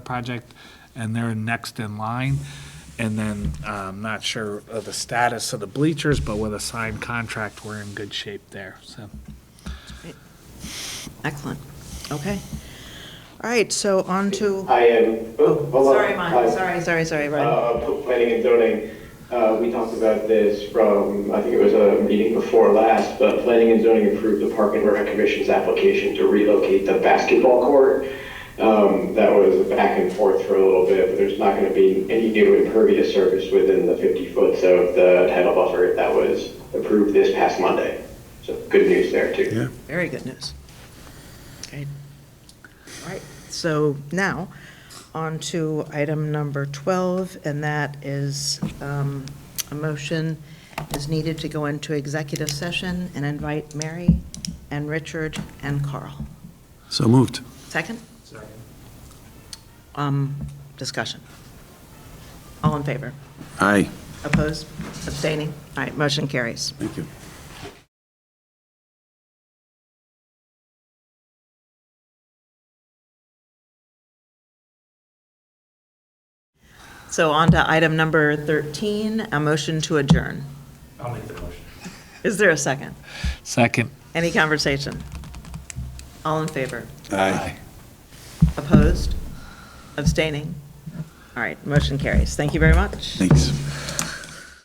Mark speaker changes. Speaker 1: project, and they're next in line. And then, I'm not sure of the status of the bleachers, but with a signed contract, we're in good shape there, so.
Speaker 2: Excellent. Okay. All right, so on to,
Speaker 3: I am, oh, hold on.
Speaker 2: sorry, Mike,
Speaker 3: Hi.
Speaker 2: sorry, sorry, sorry, Ryan.
Speaker 3: Uh, p- planning and zoning, uh, we talked about this from, I think it was a meeting before last, but planning and zoning approved the Park and Rec Commission's application to relocate the basketball court. Um, that was back and forth for a little bit, but there's not gonna be any new impervious surface within the fifty foot of the title buffer that was approved this past Monday. So good news there too.
Speaker 4: Yeah.
Speaker 2: Very good news. Okay. All right, so now, on to item number 12, and that is um, a motion is needed to go into executive session and invite Mary and Richard and Carl.
Speaker 4: So moved.
Speaker 2: Second? Um, Discussion. All in favor?
Speaker 4: Aye.
Speaker 2: Opposed? Abstaining? All right, motion carries.
Speaker 4: Thank you.
Speaker 2: So on to item number 13, a motion to adjourn.
Speaker 5: I'll make the motion.
Speaker 2: Is there a second?
Speaker 1: Second.
Speaker 2: Any conversation? All in favor?
Speaker 4: Aye.
Speaker 2: Opposed? Abstaining? All right, motion carries. Thank you very much.
Speaker 4: Thanks.